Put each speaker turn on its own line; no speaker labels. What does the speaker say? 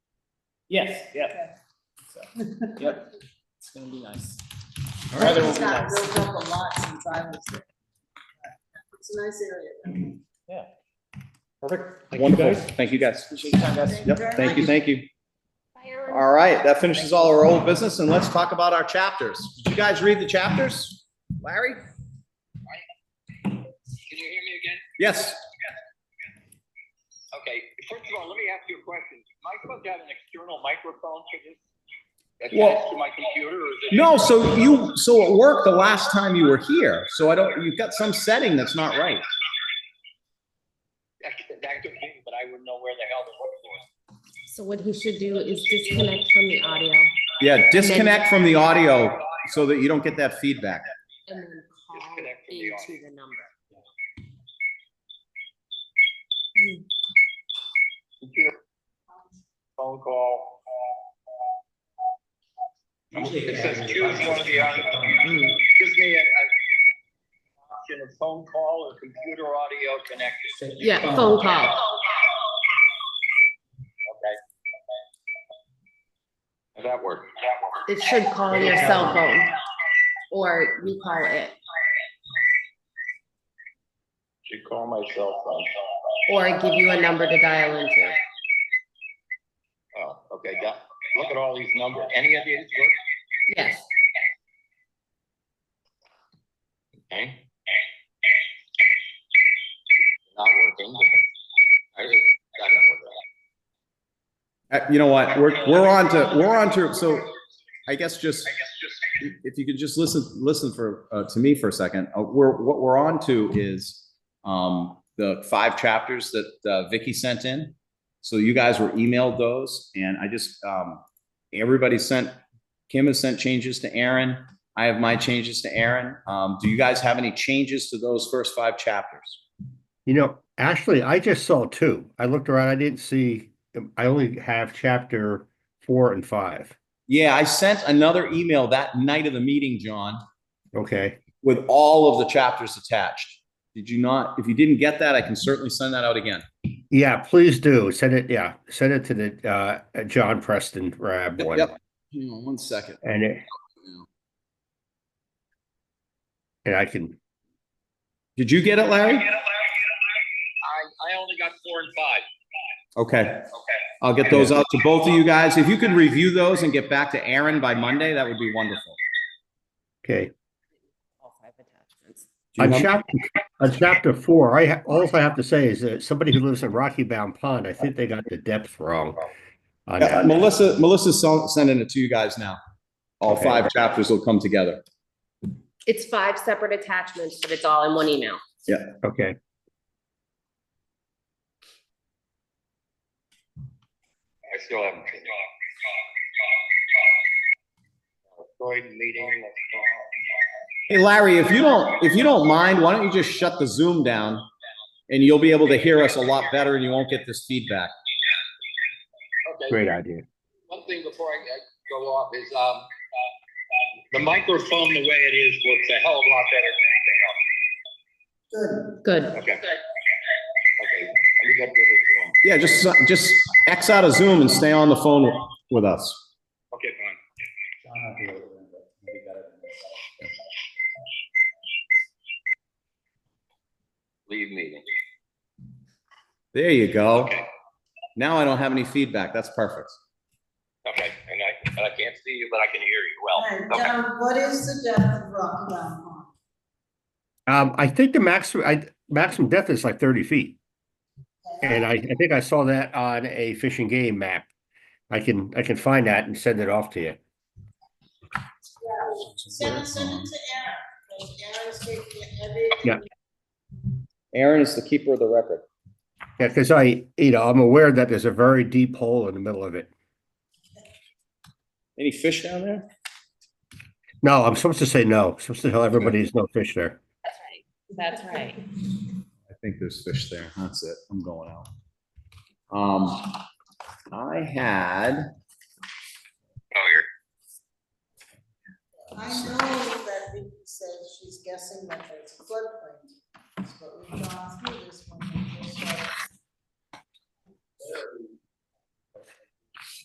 Yes, yeah,
Okay.
so, yep, it's gonna be nice.
All right.
Weather will
It's
be
not
nice.
built up a lot since I was there. It's a nice area. though.
Perfect.
you,
Wonderful.
guys.
Thank you, guys.
Appreciate your time, guys.
Thank you
Yep,
very
thank you,
much.
thank you. All right, that finishes all our old business and let's talk about our chapters. Did you guys read the chapters? Larry?
Can you hear me again?
Yes.
Okay, first of all, let me ask you a question. Am I supposed to have an external microphone for this?
Well-
Attached to my computer or is it?
No, so you, so at work, the last time you were here, so I don't, you've got some setting that's not right.
That could that could be, but I wouldn't know where the hell the work was.
So what he should do is disconnect from the audio
Yeah, disconnect from the audio so that you don't get that feedback.
and then call
Disconnect from the
into the
audio.
number.
Computer, Phone call. It says choose one of the, options. gives me a, a option of phone call or computer audio connected.
Yeah, phone call.
Okay. How'd That worked. That worked.
It should call your cell phone or recall it,
Should call my cell phone.
or give you a number to dial into.
Oh, okay, got, look at all these numbers. Any of these work?
Yes.
Okay. Not working. I just got it working.
Uh, You know what, we're, we're on to, we're on to, so I guess just, if you could just listen, listen for, uh, to me for a second, uh, we're, what we're on to is, um, the five chapters that, uh, Vicky sent in. So you guys were emailed those and I just, um, everybody sent, Kim has sent changes to Aaron. I have my changes to Aaron. Um, do you guys have any changes to those first five chapters?
You know, actually, I just saw two. I looked around, I didn't see, um, I only have chapter four and five.
Yeah, I sent another email that night of the meeting, John.
Okay,
with all of the chapters attached. Did you not? If you didn't get that, I can certainly send that out again.
yeah, please do. Send it, yeah, send it to the, uh, John Preston Rab
Yep,
one.
yep. Hang on one second.
And it. And I can,
Did you get it, Larry?
I, I only got four and five.
Okay. I'll get those out to both of you guys. If you could review those and get back to Aaron by Monday, that would be wonderful.
okay.
All five attachments.
Do you
On
have-
chapter, on chapter four, I, ha- all I have to say is that somebody who lives in Rocky Bound Pond, I think they got the depth wrong. on
Yeah,
that.
Melissa, Melissa's sel- sending it to you guys now. All
Okay.
five chapters will come together.
It's five separate attachments, but it's all in one email.
Okay,
I still haven't. Floyd meeting.
Hey, Larry, if you don't, if you don't mind, why don't you just shut the Zoom down? And you'll be able to hear us a lot better and you won't get this feedback.
Okay,
great idea.
one thing before I I go off is, um, the microphone, the way it is, works a hell of a lot better than anything else.
Good.
Okay. Okay, let me get rid of Zoom.
Yeah, just, just X out of Zoom and stay on the phone with us.
Okay, fine. Leave meeting.
There you go.
Okay.
Now I don't have any feedback. That's perfect.
Okay, and I, and I can't see you, but I can hear you
All
well.
right, John, what is the depth of Rocky Mountain Pond?
Um, I think the maximum, I, maximum depth is like thirty feet. And I, I think I saw that on a fishing game map. I can, I can find that and send it off to you.
Send it, send it to Aaron. because Aaron's taking every.
Yeah.
Aaron is the keeper of the record.
Yeah, because I, you know, I'm aware that there's a very deep hole in the middle of it.
Any fish down there?
No, I'm supposed to say no, supposed to tell everybody there's no fish there.
That's right.
I think there's fish there. That's it. I'm going out. Um, I had,
Oh, you're
I know that Vicky says she's guessing that there's floodplain, but we've gone through this one